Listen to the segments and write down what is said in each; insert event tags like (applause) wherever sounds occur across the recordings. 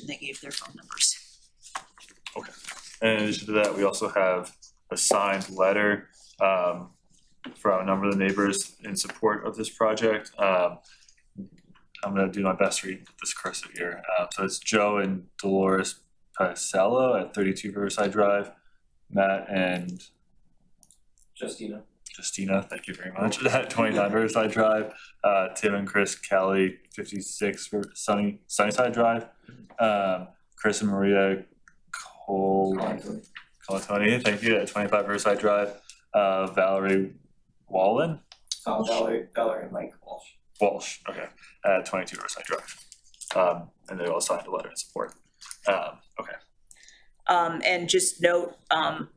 and they gave their phone numbers. And in addition to that, we also have a signed letter um from a number of the neighbors in support of this project. Um I'm gonna do my best to read this cursor here. Uh so it's Joe and Dolores Pacello at thirty-two Riverside Drive. Matt and Justina. Justina, thank you very much, (laughs) at twenty-nine Riverside Drive. Uh, Tim and Chris Kelly, fifty-six Ri- Sunny, Sunnyside Drive. Um, Chris and Maria Cole. Colatoni, thank you, at twenty-five Riverside Drive, uh, Valerie Wallen, Uh, Valerie, Valerie and Mike Walsh. Walsh, okay, at twenty-two Riverside Drive. Um, and they all signed a letter in support. Um, okay, Um, and just note, um,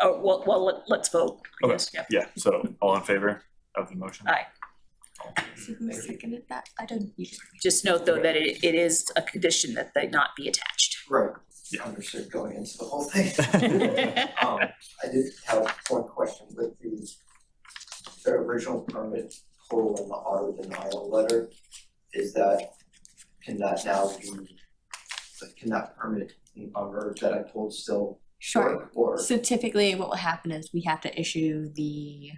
oh, well, well, let- let's vote. I Okay. guess, yeah. yeah, so all in favor of the motion? (laughs) Aye. So who seconded that? I don't. Just note though that it, it is a condition that they not be attached. (laughs) Right. Yeah. Understood going into the whole (laughs) thing. Um, I did have one question with the, the original permit total in the auto denial letter. Is that, can that now be, can that permit in honor that I told still Sure. work or? So typically what will happen is we have to issue the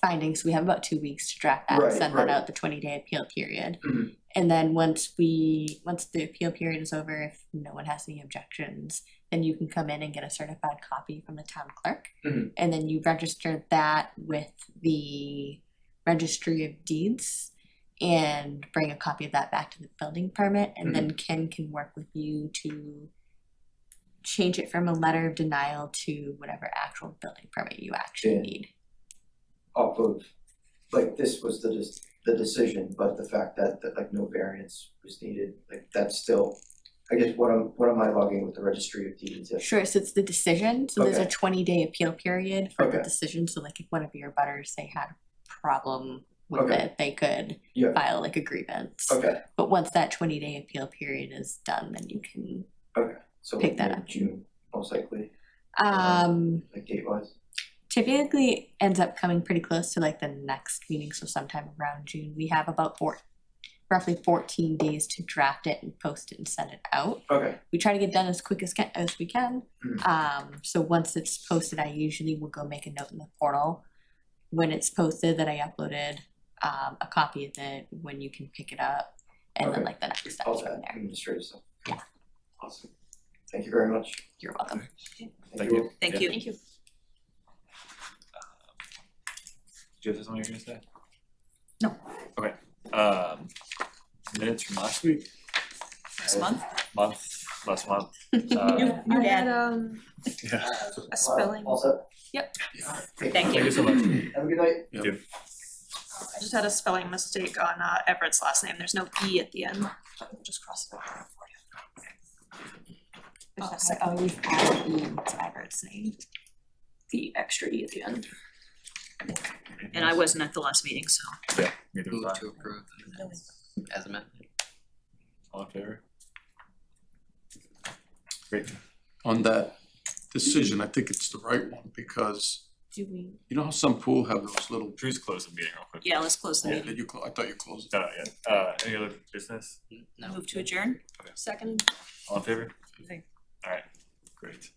findings. We have about two weeks to draft that and Right, send that right. out the twenty day appeal period. Mhm. And then once we, once the appeal period is over, if no one has any objections, then you can come in and get a certified copy from the town clerk. Mhm. And then you register that with the registry of deeds and bring a copy of that back to the building permit Mm-hmm. and then Ken can work with you to change it from a letter of denial to whatever actual building permit you actually Yeah. need. off of, like, this was the, dec- the decision, but the fact that, that like no variance was needed, like, that's still, I guess, what am, what am I logging with the registry of deeds? if- Sure, so it's the decision, so there's a Okay. twenty day appeal period for the Okay. decision, so like if one of your butters, they had a problem with Okay. it, they could Yeah. file like a grievance. Okay, But once that twenty day appeal period is done, then you can, okay, so Pick that mid- up. June, most likely, um, like date wise, typically ends up coming pretty close to like the next meeting, so sometime around June, we have about four, roughly fourteen days to draft it and post it and send it out. okay, we try to get done as quick as can, as we can. Mm. Um, so once it's posted, I usually will go make a note in the portal when it's posted that I uploaded um, a copy of it when you can pick it up, and then Okay. like the next steps all from that there. administrative stuff. Yeah. Awesome, thank you very much. You're welcome. Thank you. all. Thank Yeah. you. you. Do you have something you're gonna say? No. Okay, um, minutes from last week, This month, month, (laughs) last month. Uh, New- new I dad. had, um, yeah, a spelling. All set? Yep. Yeah, Thank thank you so much. Have a good night. oh, I just had a spelling mistake on uh, Everett's last name. There's no E at the end. Just cross it out for you. There's no second Oh, we've got the- to Everett's name. The extra E at the end. and I wasn't at the last meeting, so. Yeah, neither was Move I. to approve the minutes as amended. All in favor? Great. on that decision, I think it's the right one, because do we? you know how some pool have those little, Drew's close the meeting real quick. Yeah, let's close the meeting. that you, clo- I thought you closed it. Uh, yeah, uh, any other business? No. Move to adjourn? Second. All in favor? Okay. Alright, great.